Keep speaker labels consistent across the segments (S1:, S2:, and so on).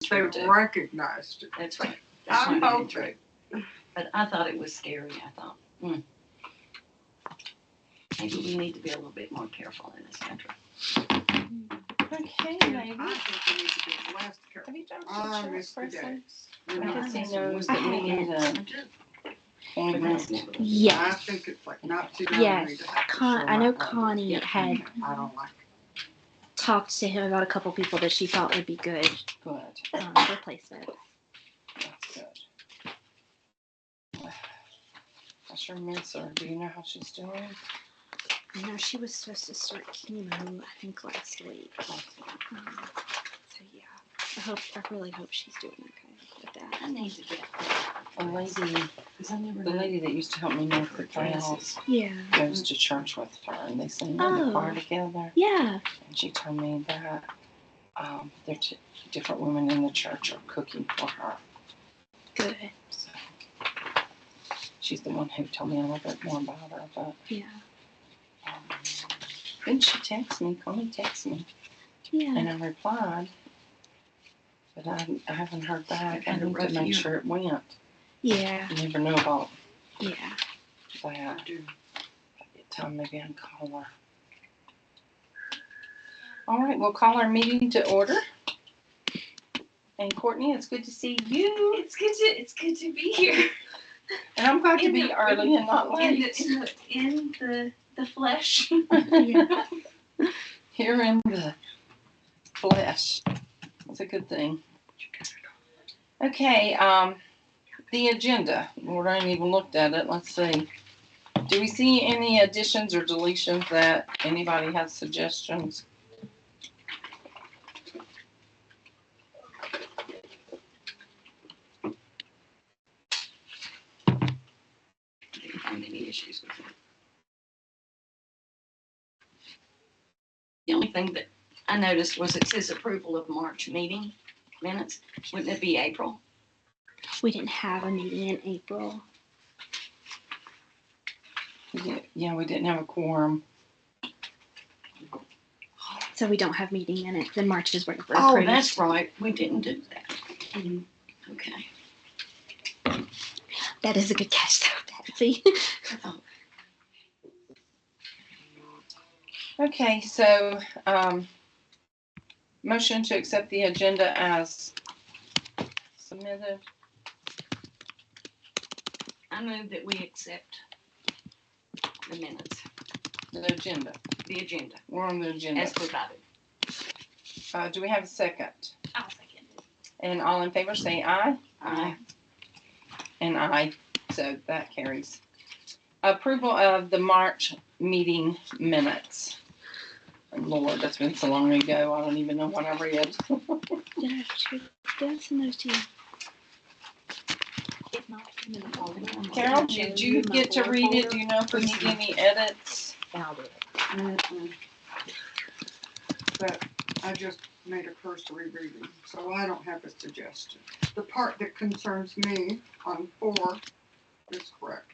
S1: They
S2: true too.
S1: recognized it.
S2: That's right. That's
S1: I'm
S2: not very
S1: hoping.
S2: true. But I thought it was scary. I thought, hmm. Maybe we need to be a little bit more careful in this country.
S3: Okay,
S1: I
S3: maybe.
S1: think we need to be less careful.
S3: Have you done
S1: I
S3: pictures
S1: miss the
S3: person?
S1: days.
S3: I
S1: When
S3: can
S1: I-
S3: see
S2: Some
S3: no.
S2: was that we had, uh,
S4: And
S2: that's never-
S1: I
S4: yes,
S1: think it's like not too early
S4: yes.
S1: to have to show
S4: Con- I know
S1: my love.
S4: Connie had
S1: I don't like
S4: talked to him about a couple people that she thought would be good
S2: Good.
S4: um, replacement.
S3: That's good. I sure miss her. Do you know how she's doing?
S4: I know she was supposed to start chemo, I think last week. Um, so yeah, I hope I really hope she's doing okay with that.
S2: I need to get
S3: A lady,
S2: because I never
S3: the
S2: knew
S3: lady that used to help me make the glasses
S4: Yeah,
S3: goes to church with her, and they sing in the choir
S4: Oh.
S3: together.
S4: yeah.
S3: And she told me that um, there are t- different women in the church are cooking for her.
S4: Good.
S3: So she's the one who told me a little bit more about her. But
S4: Yeah.
S3: um, then she texted me, Connie texted me,
S4: Yeah.
S3: and I replied. But I, I haven't heard back. I
S2: Had a
S3: need to
S2: rough
S3: make
S2: year.
S3: sure it went.
S4: Yeah.
S3: I never know about
S4: Yeah.
S3: that.
S1: do.
S3: Time maybe I'll call her. All right, we'll call our meeting to order. And Courtney, it's good to see you.
S5: It's good to it's good to be here
S3: And I'm glad to
S5: In
S3: be
S5: the-
S3: early and not
S5: in
S3: late.
S5: the in the in the, the flesh.
S4: Yeah.
S3: Here in the flesh. That's a good thing. Okay, um, the agenda. We haven't even looked at it. Let's see. Do we see any additions or deletions that anybody has suggestions?
S2: didn't find any issues with it. The only thing that I noticed was it says approval of March meeting minutes. Wouldn't it be April?
S4: We didn't have a meeting in April.
S3: Yeah, yeah, we didn't have a quorum.
S4: So we don't have meeting minutes. Then March is where we're
S2: Oh,
S4: approved.
S2: that's right. We didn't do that. Mm-hmm. Okay.
S4: That is a good catch though, Patsy.
S3: Okay, so, um, motion to accept the agenda as submitted.
S2: I move that we accept the minutes,
S3: The agenda.
S2: the agenda,
S3: We're on the agenda.
S2: as provided.
S3: Uh, do we have a second?
S5: I'll second it.
S3: And all in favor say aye.
S2: Aye.
S3: And aye, so that carries. Approval of the March meeting minutes. Lord, that's been so long ago, I don't even know what I read.
S4: Did I shoot those and those to you? If not, I'm gonna call them.
S3: Carol, did you get to read it? Do you know if we need any edits?
S2: Mm-mm.
S1: But I just made a cursory reading, so I don't have a suggestion. The part that concerns me on four is correct.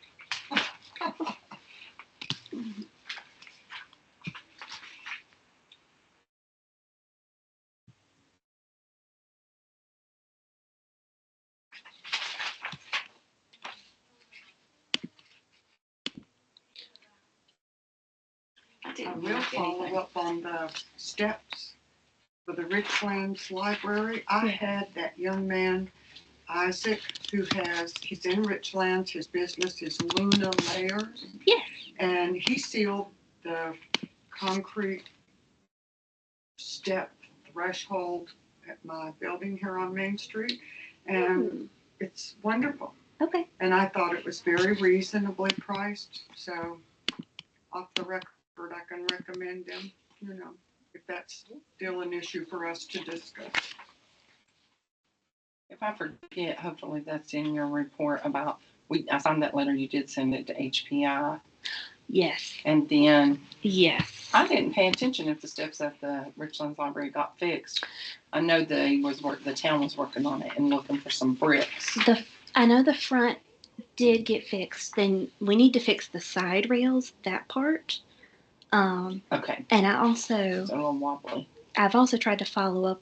S2: I
S1: I
S2: didn't
S1: will
S2: mark
S1: follow
S2: anything.
S1: up on the steps for the Richlands Library. I had that young man, Isaac, who has, he's in Richlands, his business is Luna Layers.
S4: Yes.
S1: And he sealed the concrete step threshold at my building here on Main Street. And
S4: Hmm,
S1: it's wonderful.
S4: Okay.
S1: And I thought it was very reasonably priced, so off the record, I can recommend them, you know, if that's still an issue for us to discuss.
S3: If I forget, hopefully that's in your report about, we, I signed that letter, you did send it to HPI.
S4: Yes.
S3: And then
S4: Yes.
S3: I didn't pay attention if the steps at the Richlands Library got fixed. I know they was work, the town was working on it and looking for some bricks.
S4: The I know the front did get fixed. Then we need to fix the side rails, that part. Um,
S3: Okay,
S4: and I also
S3: so a little wobbly.
S4: I've also tried to follow up